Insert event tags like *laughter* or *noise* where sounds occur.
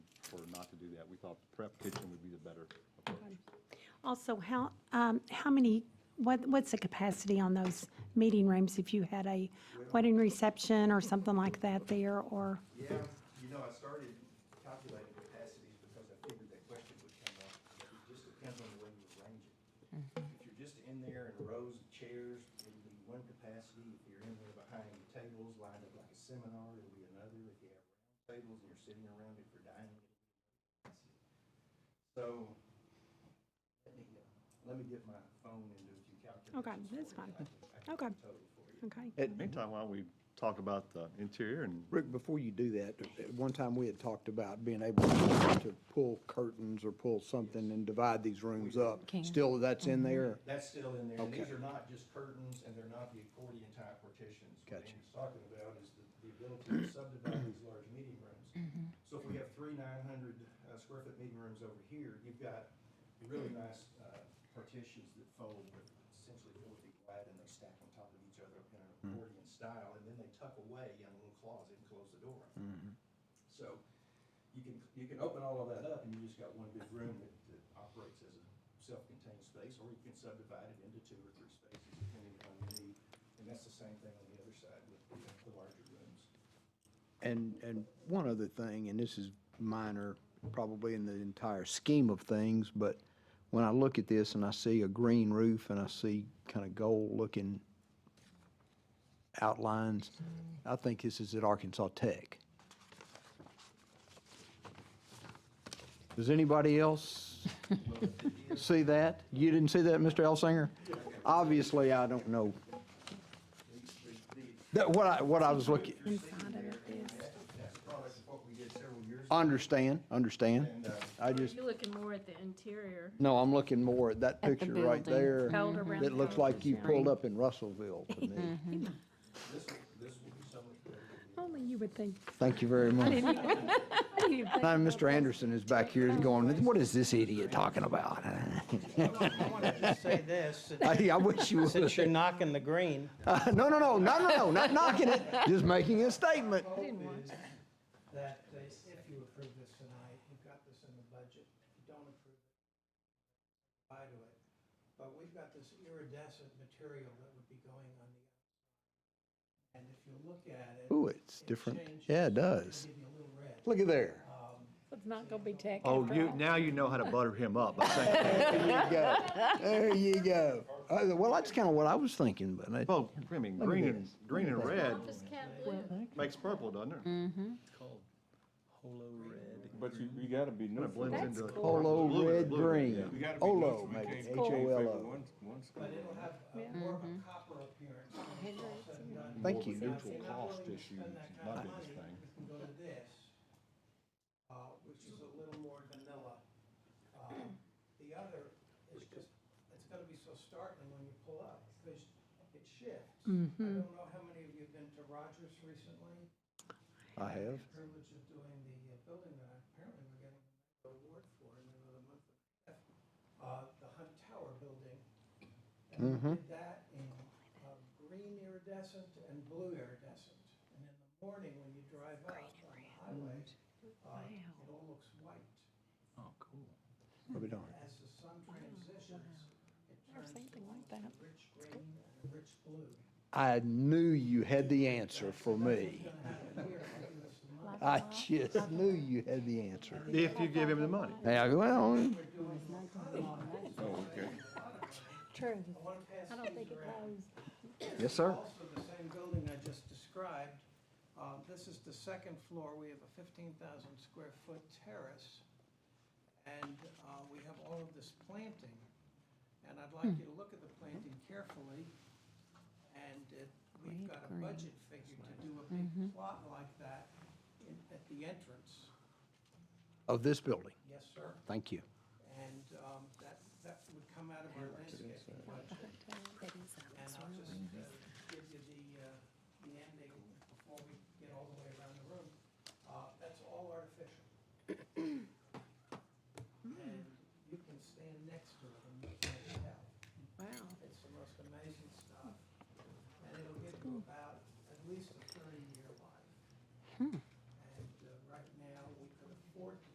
thought perhaps kitchen would be the better approach. Also, how, um, how many, what, what's the capacity on those meeting rooms if you had a wedding reception or something like that there, or, Yeah, you know, I started calculating capacities because I figured that question would come up. but It just depends on the way you arrange it. Mm-hmm. If you're just in there in rows of chairs, it'll be one capacity. If you're in there behind tables lined up like a seminar, it'll be another. If you have round tables and you're sitting around, if you're dining, it'll be another capacity. So, let me, uh, let me get my phone and do a few calculations. Okay, that's for fine. you. I can- I can Okay. total for you. okay? Meantime, why don't we talk about the interior and Rick, before you do that, at one time we had talked about being able to pull curtains or pull something and divide these rooms up. Can. Still, that's in there? That's still in there, and these Okay. are not just curtains, and they're not the accordion type partitions. What Gotcha. Andy's talking about is the, the ability to subdivide these large meeting rooms. So if we have three nine hundred, uh, square foot meeting rooms over here, you've got really nice, uh, partitions that fold with essentially four feet wide, and they stack on top of each other in an Mm-hmm. accordion style, and then they tuck away in a little closet and close the door. Mm-hmm. So you can, you can open all of that up and you just got one big room that, that operates as a self-contained space, or you can subdivide it into two or three spaces depending on your need. And that's the same thing on the other side with the, the larger rooms. And, and one other thing, and this is minor, probably in the entire scheme of things, but when I look at this and I see a green roof and I see kind of gold-looking outlines, I think this is at Arkansas Tech. Does anybody else *laughs* see that? You didn't see that, Mr. Elsinger? Obviously, I don't know. That, what I, what I was looking, Inside of it is. That's a product of what we did several years ago. Understand, understand. And, uh, I Are just, you looking more at the interior? no, I'm looking more at that the picture right building. there. Held around Mm-hmm. That looks the like you conference pulled up in Russellville *laughs* to me. this, will- this will be so much better. than the- Only you would think. Thank you very much. I didn't even think Now, Mr. Anderson is back here going, what is this idiot talking about? I want to *laughs* just say this, since- I I wish *laughs* you since you're would. knocking the green, Uh, No, no, no, no, no, no, not knocking it, just making a statement. hope is that they- if you approve this tonight, you've got this in the budget. If you don't approve it, buy to it. But we've got this iridescent material that would be going on the outside. And if you look at it. Ooh, it's it different. changes. Yeah, it does. Give you a little red. Look at there. It's not gonna be tech. Oh, you, now you know how to butter him up by *laughs* saying, There you go. There you go. Uh, Well, that's kind of what I was thinking, but I- well, I mean, Oh, green and, green and red makes purple, doesn't it? But you, you gotta be Kind new of for blends it. into. a polo, blue- red, blue, yeah. You green. gotta be new Olo, so we maybe, can't H keep O favor L O. one- one school. But it'll have a more of a copper appearance. when Mm-hmm. it's all said and done. Thank you. Now, if you're Neutral cost not willing to issue spend is that not kind of a big money, thing. we can go to this, uh, which is a little more vanilla. Uh, The other is just, it's gonna be so startling when you pull up, because it shifts. I don't know how many of you have been to Rogers recently? I have. Privilege of doing the uh, building that apparently we're getting an award for in another month. Uh, the Hunt Tower building. And we did that in uh, green iridescent and blue iridescent. And in the morning, when you drive up on the highway, uh, it all looks white. Probably don't. As the sun transitions, it turns to something like a that. rich green and a rich blue. I knew you had the answer for me. I just knew you had the answer. If you give him the money. Yeah, well, Oh, True. I want to pass I don't think these it around. knows. yes, sir. Also, the same building I just described, uh, this is the second floor. We have a 15,000 square foot terrace. And uh, we have all of this planting. And I'd Hmm. like you to look at the planting carefully. And it- we've got a budget figure to do a big Mm-hmm. plot like that in- at the entrance. Of this building. Yes, sir. Thank you. And um, that, that would come out of our landscaping budget. And I'll just uh, give you the, uh, the ending before we get all the way around the room. Uh, That's all artificial. And you can stand next to it and you can't tell. Wow. It's the most amazing stuff. And it'll give you about at least a uh,